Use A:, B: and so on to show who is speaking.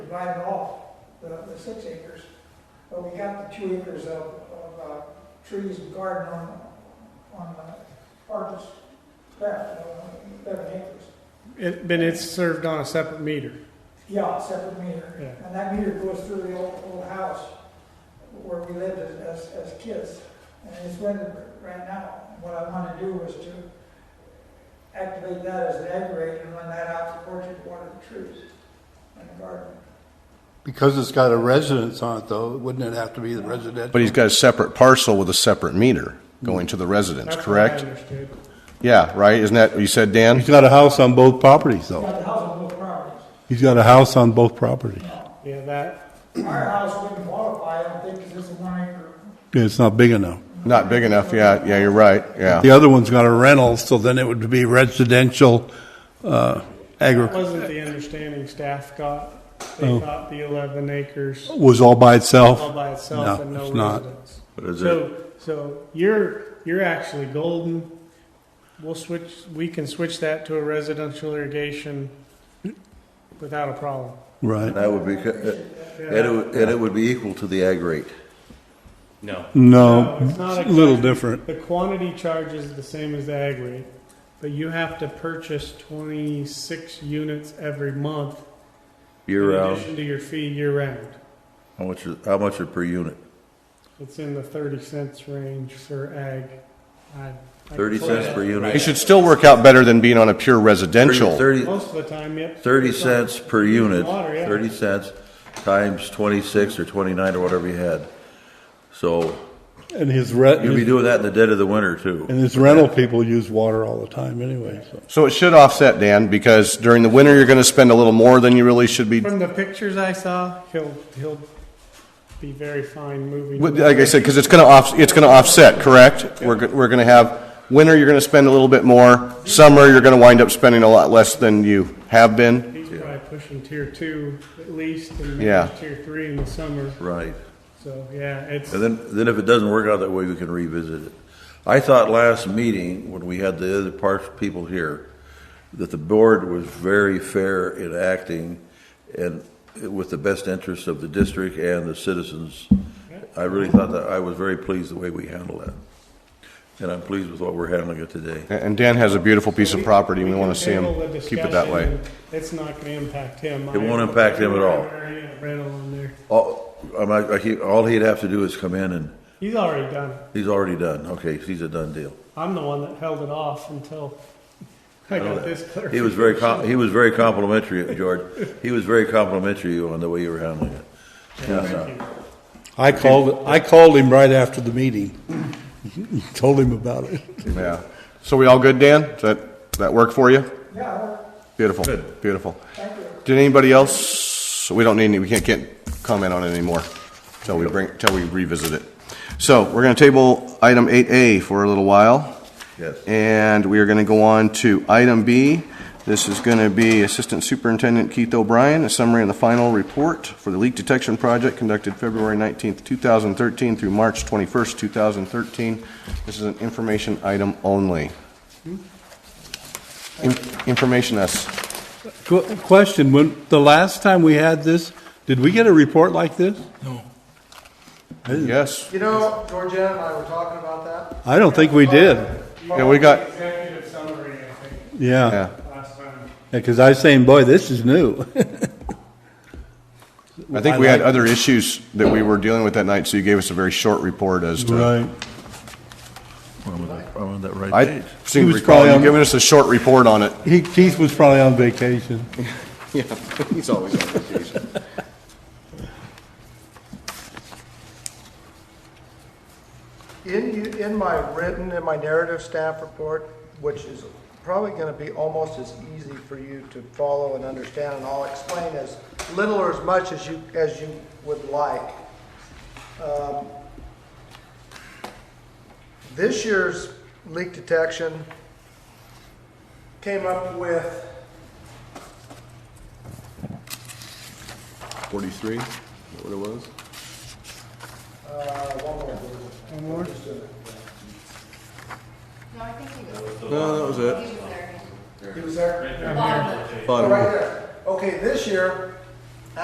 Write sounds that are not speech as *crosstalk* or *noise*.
A: divided off the, the six acres. But we got the two acres of, of, uh, trees and garden on, on the artist left, uh, eleven acres.
B: It, but it's served on a separate meter.
A: Yeah, separate meter.
B: Yeah.
A: And that meter goes through the old, old house where we lived as, as, as kids. And it's rented right now. What I want to do is to activate that as an aggregate and run that out to orchard, water the trees and the garden.
C: Because it's got a residence on it, though, wouldn't it have to be the residential?
D: But he's got a separate parcel with a separate meter going to the residence,
B: That's what I
D: correct?
B: understood.
D: Yeah, right, isn't that what you said, Dan?
E: He's got a house on both properties, though.
A: Got the house on both properties.
E: He's got a house on both properties.
B: Yeah, that,
A: Our house wouldn't qualify, I don't think, because it's a one acre.
E: Yeah, It's not big enough.
D: Not big enough, yeah, yeah, you're right, yeah.
E: The other one's got a rental, so then it would be residential, uh,
B: that
E: agri,
B: wasn't the understanding staff got. They
E: Oh.
B: thought the 11 acres
E: was all by
B: all
E: itself.
B: by itself
E: No,
B: and no
E: it's not.
B: residents.
F: But is it,
B: So, so you're you're actually golden. We'll switch. We can switch that to a residential irrigation without a problem.
E: Right.
F: that would be, uh, and it would, and it would be equal to the ag rate.
G: No.
E: No,
B: No, it's not
E: it's a little
B: exactly-
E: different.
B: The quantity charge is the same as the ag rate, but you have to purchase 26 units every month
F: Year
B: in
F: round,
B: addition to your fee year round.
F: uh, how much, is- how much are per unit?
B: It's in the 30 cents range for ag. I, I
F: Thirty cents per unit?
D: It should still work out better than being on a pure residential.
F: Thirty,
B: Most of the time, yep.
F: thirty cents per unit,
B: Water, yeah.
F: thirty cents times twenty-six or twenty-nine or whatever you had. So
E: And his
F: you'd be
E: rent,
F: doing that in the dead of the winter
E: and
F: too.
E: his rental people use water all the time anyway, so.
D: So it should offset, Dan, because during the winter, you're gonna spend a little more than you really should be.
B: From the pictures I saw, he'll he'll be very fine moving.
D: Like I said, because it's gonna off, it's gonna offset, correct? We're, go- we're gonna have, winter, you're gonna spend a little bit more, summer, you're gonna wind up spending a lot less than you have been.
B: He's probably pushing tier two at least, and maybe
D: Yeah.
B: tier three in the summer.
F: Right.
B: So yeah, it's
F: And then, then if it doesn't work out that way, we can revisit it. I thought last meeting, when we had the other parts people here, that the board was very fair in acting and with the best interests of the district and the citizens. I really thought that, I was very pleased the way we handled that. And I'm pleased with what we're handling it today.
D: And and Dan has a beautiful piece of property, we
B: can
D: wanna see him
B: table the
D: keep it that
B: discussion,
D: way.
B: and It's not going to impact him.
F: It won't impact him at all.
B: Rental on there.
F: All, I'm not- I keep- all he'd have to do is come in and,
B: He's already done. it.
F: he's already done, okay, he's a done deal.
B: I'm the one that held it off until I got
F: know that.
B: this clarification.
F: He was very com- he was very complimentary, George. He was very complimentary on the way you were handling it.
B: Thank you.
E: I called, I called him right after the meeting, *laughs* told him about it.
D: Yeah. So we all good, Dan? Does that, that work for you?
A: Yeah,
D: Beautiful, beautiful.
A: thank you.
D: Did anybody else, we don't need, any- we can't, can't comment on it anymore till we bring, till we revisit it. So we're gonna table item eight A for a little while.
F: Yes.
D: And we are gonna go on to item B. This is gonna be Assistant Superintendent Keith O'Brien, a summary of the final report for the leak detection project conducted February nineteenth, two thousand thirteen through March twenty-first, two thousand thirteen. This is an information item only. In- Information us.
E: Qu- Question, when, the last time we had this, did we get a report like this?
D: Yes.
H: You know, Georgia and I were talking about that.
E: I don't think we did.
D: Yeah, we got-
B: executive summary. I think
E: Yeah,
D: Yeah.
B: last time.
E: because I was saying, boy, this is new. *laughs*
D: I think we had other issues that we were dealing with that night, so you gave us a very short report as to.
F: I'm on that- I'm on that right
D: I
F: page.
D: seem
E: He
D: to
E: was
D: recall
E: probably
D: you
E: on-
D: giving us a short report on it.
E: He, Keith was probably on vacation.
D: Yeah, he's always on vacation.
H: In, you- in my written, in my narrative staff report, which is probably going to be almost as easy for you to follow and understand, and I'll explain as little or as much as you, as you would like. Um, This year's leak detection came up with
D: Forty-three, what it was?
H: uh, One more?
I: No, I think he was.
F: No, that was it.
I: He was there.
H: He was there?
I: Bottom.
H: Right there. Okay, this year,